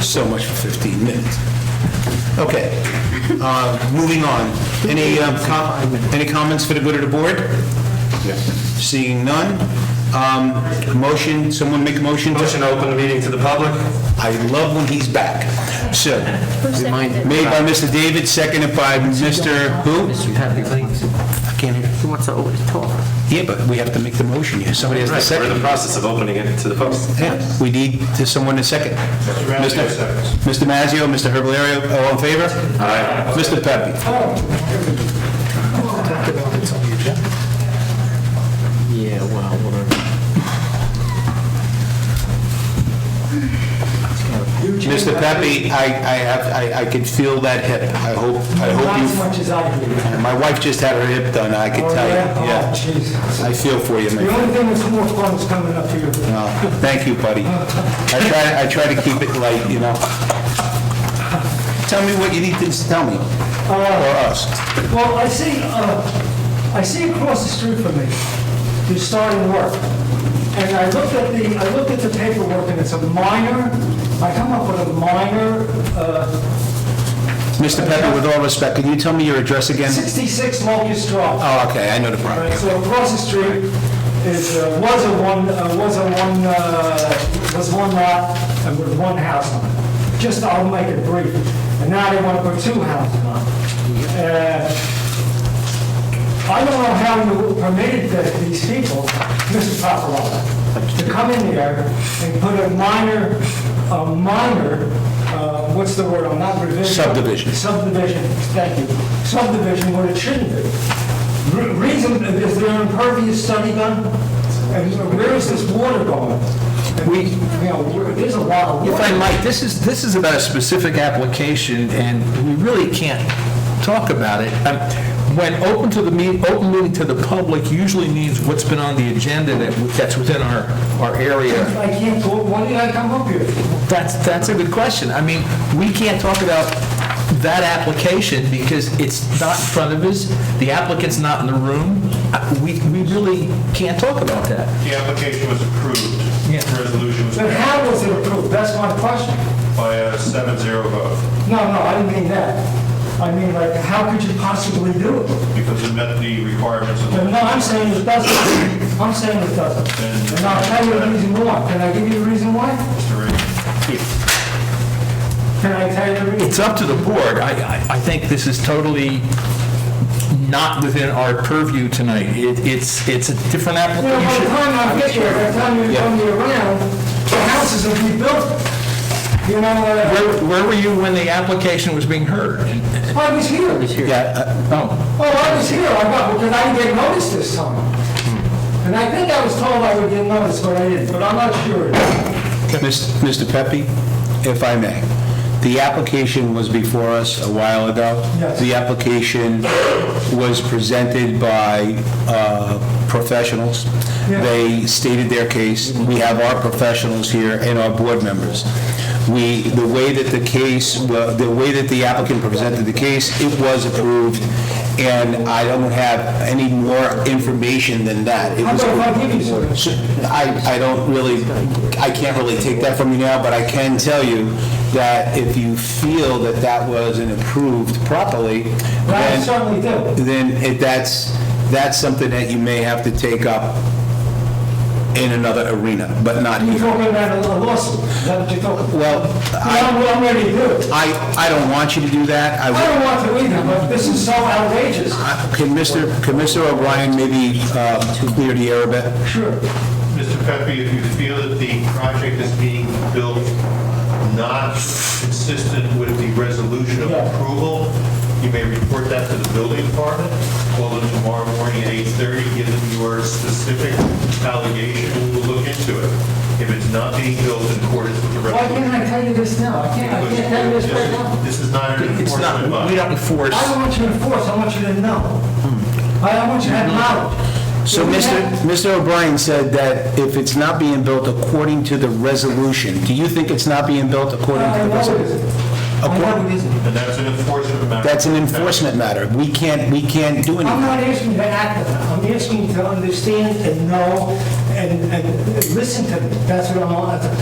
so much for 15 minutes. Okay, uh, moving on. Any, um, com- any comments for the good of the board? Seeing none, um, motion, someone make a motion? to- Motion to open the meeting to the public? I love when he's back. So, seconded? made by Mr. David, seconded by Mr. Who? I can't hear. He wants to always talk. Yeah, but we have to make the motion here. Somebody has to Right, we're in the second. process of opening it to the public. Yeah, We need to- someone to second. Mazzio seconds. Mr. Mazzio, Mr. Herbalario, all in favor? Aye. Mr. Pepe? Yeah, well, whatever. Mr. Pepe, I, I have, I, I could feel that hip. I hope, I Not as hope much as I do. you, my wife just had her hip done, I could Oh, tell you. yeah? Oh, Yeah, Jesus. I feel for you, The man. only thing that's more fun is coming up here. No, Thank you, buddy. I try, I try to keep it light, you know? Tell me what you need to tell me, or us. Well, I see, uh, I see across the street from me, you're starting work. And I looked at the, I looked at the paperwork and it's a minor, I come up with a minor, uh, Mr. Pepe, with all respect, can you tell me your address again? 66 Locust Drive. Oh, okay, I know the All property. right, So across the street is, uh, was a one, uh, was a one, uh, was one lot and with one house on it. Just, I'll make it brief. And now they want to put two houses on it. Uh, I don't know how you permitted that these people, Mr. Paparotto, to come in there and put a minor, a minor, uh, what's the word, I'm not revision. Subdivision. Subdivision, thank you. Subdivision where it shouldn't be. Re- Reason, is there an impervious study done? And where is this water going? And, We- You know, we're- there's a lot of If I water. might, this is, this is about a specific application, and we really can't talk about it. Um, When open to the meet, open meeting to the public usually means what's been on the agenda that, that's within our, our area. I can't talk, why did I come up here? That's, that's a good question. I mean, we can't talk about that application because it's not in front of us, the applicant's not in the room. Uh, We, we really can't talk about that. The application was approved. Yeah. The Resolution was But passed how was it approved? That's my question. by a 7-0 vote No, no, I didn't mean that. I mean, like, how could you possibly do it? because it met the requirements of the... But no, I'm saying it doesn't. I'm saying it doesn't. And I'll tell you the reason why. Can I give you the reason why? Can I tell you the reason? It's up to the board. I, I- I think this is totally not within our purview tonight. It- It's, it's a different You know, by the application. time I get here, by the time you come me around, the houses will be built. You know, uh, Where where were you when the application was being heard? And- I was here. Oh, Yeah, Oh, I was here, I got, because I didn't get noticed this time. And I think I was told I would get noticed, but I didn't, but I'm not sure. uh, Mis- Mr. Pepe, if I may, the application was before us a while ago. Yes. The application was presented by uh, professionals. Yeah. They stated their case. We have our professionals here and our board members. We, the way that the case, well, the way that the applicant presented the case, it was approved, and I don't have any more information than that. It How was about if I give you some? So, I, I don't really, I can't really take that from you now, but I can tell you that if you feel that that wasn't approved properly, But I then, certainly do. then it- that's, that's something that you may have to take up in another arena, but not You're here. talking about a lawsuit, is that what you're talking about? Well, I- Yeah, I'm, I'm ready to do it. I, I don't want you to do that. I I, don't want to either, but this is so outrageous. would- can Mr., can Mr. O'Brien maybe uh, clear the air a bit? Sure. Mr. Pepe, if you feel that the project is being built not consistent with the resolution of Yeah. approval, you may report that to the building department, call them tomorrow morning at 8:30, give them your specific allegation, and we'll look into it. If it's not being built in accordance with the Why resolution... can't I tell you this now? I can't, I can't tell you this right now. This is not an it's not, enforcement body. we don't enforce. I don't want you to force, I want you to know. I I want you to have knowledge. So If you Mr. have- Mr. O'Brien said that if it's not being built according to the resolution, do you think it's not being built according to I the know it resolution? isn't. I know it isn't. And that's an enforcement matter. That's an enforcement matter. We can't, we can't do I'm anything. not asking to act, on it. I'm asking to understand and know and, and listen to me. That's what I'm, all-